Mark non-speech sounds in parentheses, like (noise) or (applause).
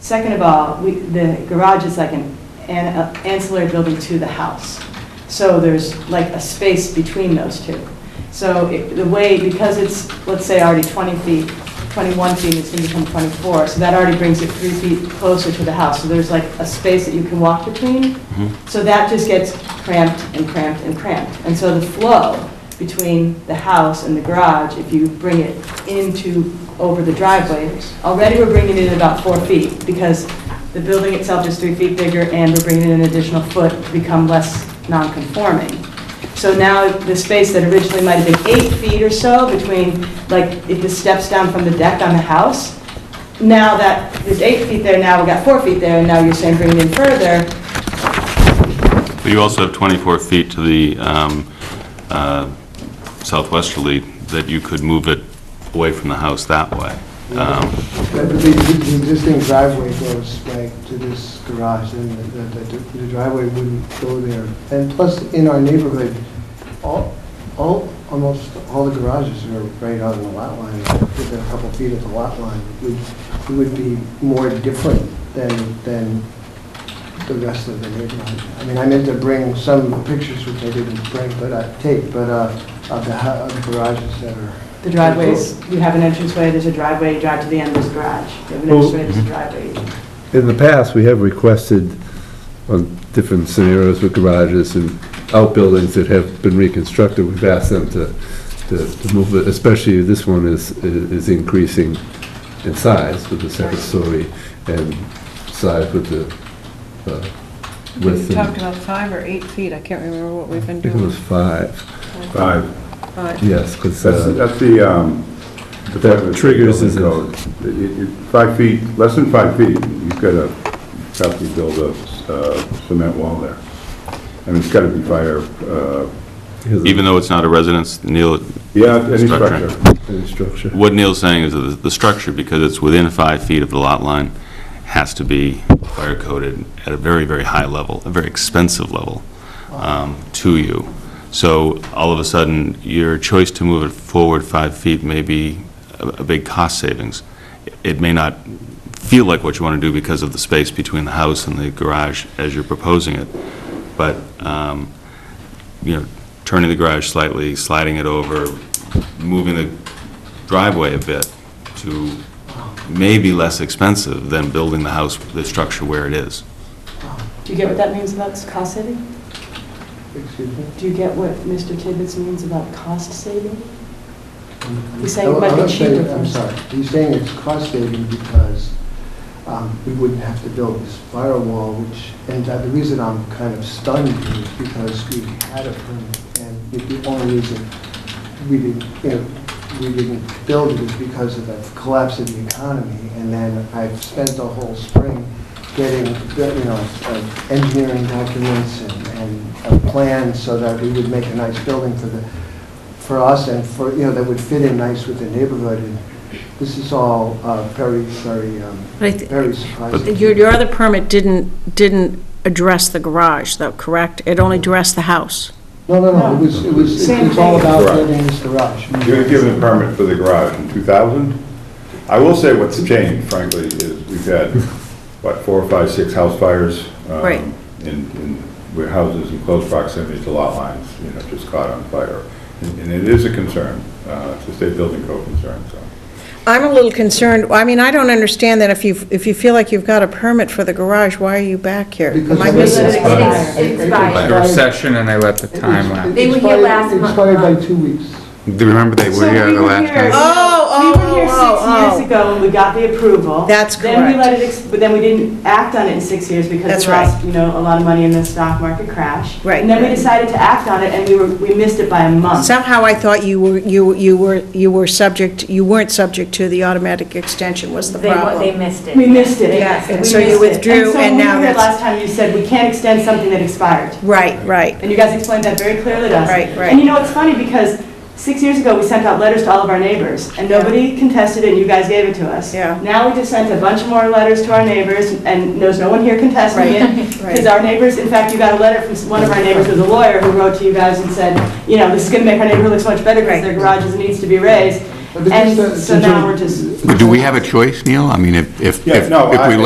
Second of all, we, the garage is like an an- uh, ancillary building to the house. So there's like a space between those two. So it- the way, because it's, let's say, already 20 feet, 21 feet, it's going to become 24, so that already brings it three feet closer to the house. So there's like a space that you can walk between. Mm-hmm. So that just gets cramped and cramped and cramped. And so the flow between the house and the garage, if you bring it into, over the driveway, already we're bringing it in about four feet, because the building itself is three feet bigger, and we're bringing in an additional foot to become less non-conforming. So now, the space that originally might have been eight feet or so between, like, if the steps down from the deck on the house, now that, there's eight feet there, now we got four feet there, and now you're saying bring it in further, But you also have 24 feet to the um, uh, southwesterly, that you could move it away from the house that way. Um, But The the existing driveway goes like to this garage, and the- the the driveway wouldn't go there. And plus, in our neighborhood, all, all, almost all the garages are right on the lot line, within a couple feet of the lot line. It would- It would be more different than, than the rest of the neighborhood. I mean, I meant to bring some pictures, which I didn't bring, but I take, but uh, of the hou- of the garages that are... the driveways, you have an entranceway, there's a driveway, you drive to the end, there's a garage. You have an Well- entranceway, there's a driveway. In the past, we have requested on different scenarios with garages and outbuildings that have been reconstructed, we've asked them to, to to move it, especially this one is, is increasing in size with the second story and size with the uh, width. We talked and- about five or eight feet, I can't remember what we've been I think it was doing. five, Five. Five. yes, uh, because That's, that's the, um. the That fire- triggers is a- code. It- it- Five feet, less than five feet, you've got to probably build a uh, cement wall there. I mean, it's got to be fire, uh, Even though it's not a residence, Neil, yeah, any Structure. structure. the structure. what Neil's saying is that the- the structure, because it's within five feet of the lot line, has to be fire-coded at a very, very high level, a very expensive level um, to you. So all of a sudden, your choice to move it forward five feet may be a a big cost savings. It may not feel like what you want to do because of the space between the house and the garage as you're proposing it, but, um, you know, turning the garage slightly, sliding it over, moving the driveway a bit to maybe less expensive than building the house, the structure where it is. oh, Do you get what that means about cost saving? Excuse me? Do you get what Mr. Tibbetts means about cost saving? He's saying it No, might I'm be not saying- cheaper for I'm us. sorry, he's saying it's cost saving because um, we wouldn't have to build this firewall, which, and uh, the reason I'm kind of stunned is because we had a permit, and it- the only reason we didn't, you know, we didn't build it is because of the collapse of the economy, and then I've spent the whole spring getting, you know, uh, engineering documents and- and a plan so that we would make a nice building for the, for us and for, you know, that would fit in nice with the neighborhood. And This is all uh, very, very, um, But I thi- very surprising. Your, your other permit didn't, didn't address the garage, though, correct? It only addressed the house. No, no, no, it was, it was, Same it's all thing. about Right. building this garage. You were given a permit for the garage in 2000. I will say what's changed frankly is we've had, what, four or five, six house fires. um, Right. In, in, where houses in close proximity to lot lines, you know, just caught on fire. And and it is a concern, uh, it's a state building code concern, so. I'm a little concerned, I mean, I don't understand that if you, if you feel like you've got a permit for the garage, why are you back here? Because Am I it missing was- something? It's- it's by- There was session and I let the It time was- lapse. it They were here expired- last month. Expired by two weeks. Do you remember they were here the last time? Oh, We were here oh, oh, six years oh. ago, when we got the approval. That's Then we correct. let it, ex- but then we didn't act on it in six years because That's we lost, you know, a lot of money in the stock market crash. Right. And then we decided to act on it, and we were, we missed it by a month. Somehow I thought you were, you, you were, you were subject, you weren't subject to the automatic extension was the They, wa- problem. they missed it. We missed it. Yeah, and We so missed it. you withdrew, and now so when we were here that's- last time, you said, we can't extend something that expired. Right, right. And you guys explained that very clearly to us. Right, right. And you know, it's funny because six years ago, we sent out letters to all of our neighbors and Yeah. nobody contested it and you guys gave it to us. Yeah. Now we just sent a bunch more letters to our neighbors and there's no one here contesting Right, it. (laughs) right. Because our neighbors, in fact, you got a letter from one of our neighbors who's a lawyer who wrote to you guys and said, you know, this is going to make our neighborhood look so much better because Right. their garages needs to be raised. But it's And just a- so now we're just. Do we have a choice, Neil? I mean, if, if, Yeah, if no, if I- we